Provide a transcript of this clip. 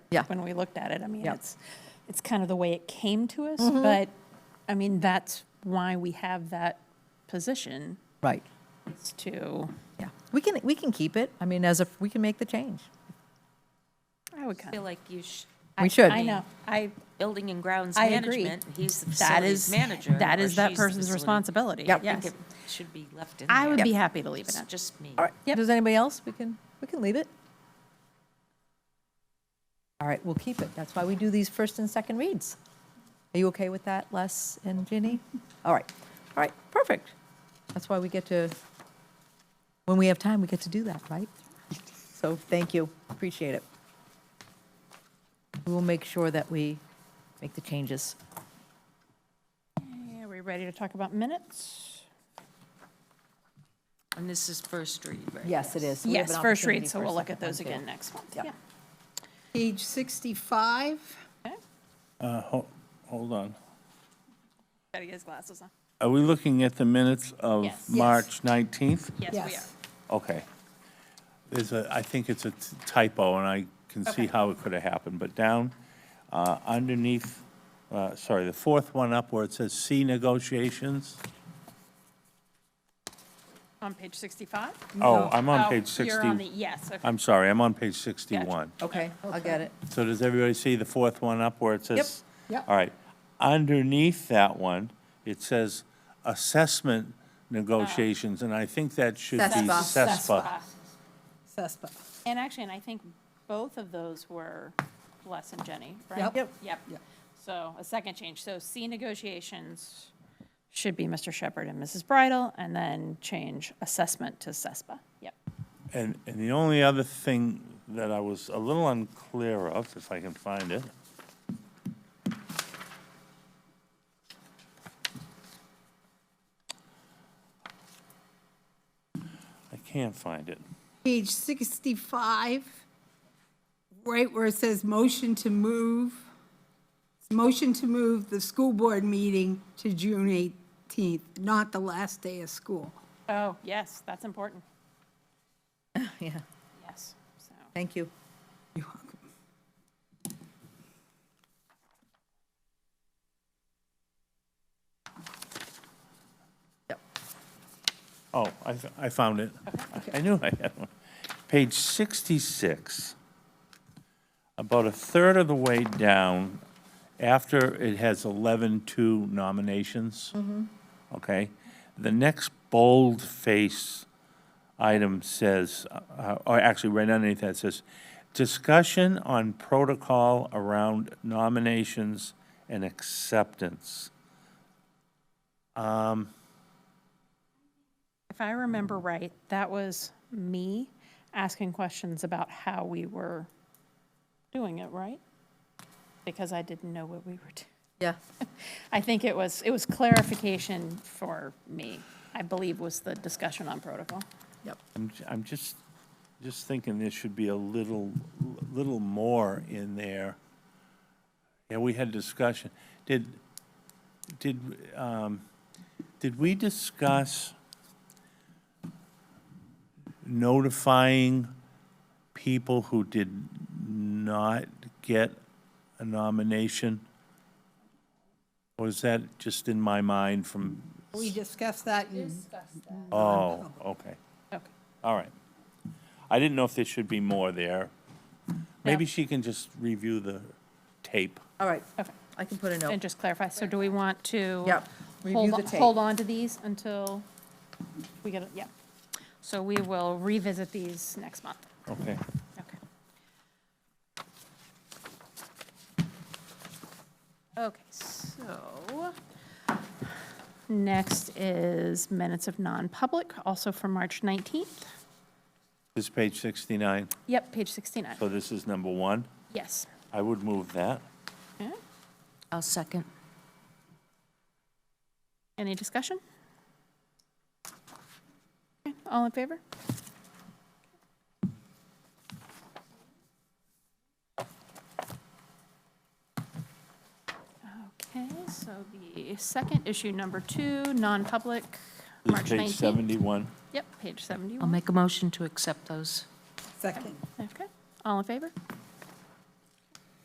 Yeah. when we looked at it. I mean, Yeah. Mm-hmm. it's, it's kind of the way it came to us, but, I mean, that's why we have that position, Right. is to, Yeah. We can, we can keep it. I mean, as if, we can make the change. I would I kind feel of, like you should. We should. I know, I, Building and grounds I agree. management, he's the that facilities is, manager. that or is that she's the person's facility- responsibility, Yep. I think yes. it should be left in there. I would be happy to leave it It's at that. just me. All right. Yep. Does anybody else? We can, we can leave it. All right, we'll keep it. That's why we do these first and second reads. Are you okay with that, Les and Ginny? All right, all right, perfect. That's why we get to, when we have time, we get to do that, right? So thank you, appreciate it. We will make sure that we make the changes. Are we ready to talk about minutes? And this is first read, right? Yes, it is. We have Yes, an first opportunity read, so for a we'll look second at those one, too. again next month, Yep. yeah. Page 65, Okay. Uh, ho- Hold on. Gotta get his glasses on. Are we looking at the minutes of Yes. Yes. March 19th? Yes, we are. yes. Okay. There's a, I think it's a t- typo, and I can see how it could have happened, but down uh, underneath, uh, sorry, the fourth one up where it says C negotiations. On page 65? Oh, I'm Oh, on page You're on the, 60. yes, okay. I'm sorry, I'm on page 61. Okay, I'll get it. So does everybody see the fourth one up where it says? Yep. All right. Underneath that one, it says assessment negotiations, and I think that should be Cespa. CESPA. Ah. CESPA. And actually, and I think both of those were Les and Jenny, right? Yep. Yep. Yep. Yep. So a second change. So C negotiations should be Mr. Shepherd and Mrs. Bridle, and then change assessment to CESPA. Yep. And, and the only other thing that I was a little unclear of, if I can find it, I can't find it. Page 65, right where it says motion to move, motion to move the school board meeting to June 18th, not the last day of school. Oh, yes, that's important. Yeah, Yes, so. thank you. You're welcome. Oh, I, f- I found it. I knew I had one. Page 66, about a third of the way down, after it has 11-2 nominations. Okay? The next bold-face item says, uh, or actually, right underneath that says, "Discussion on protocol around nominations and acceptance." If I remember right, that was me asking questions about how we were doing it, right? Because I didn't know what we were doing. Yeah. I think it was, it was clarification for me, I believe was the discussion on protocol. Yep. I'm, j- I'm just, just thinking there should be a little, little more in there. Yeah, we had discussion. Did, did, um, did we discuss notifying people who did not get a nomination? Or is that just in my mind from, We discussed that in oh, okay. Okay. All right. I didn't know if there should be more there. Maybe she can just review the tape. All right, Okay, I can put a and note. just clarify, so do we want to? Yep. Hold, Review the on- tape. hold on to these until we get, it. yeah. So we will revisit these next month. Okay. Okay. Okay, so next is minutes of non-public, also from March 19th. This is page 69, Yep, page 69. so this is number one. Yes. I would move that. Okay. I'll second. Any discussion? Okay, All in favor? Okay, so the second issue, number two, non-public, This March is page 19th. 71. Yep, page I'll 71. make a motion to accept those. second. Okay, all in favor?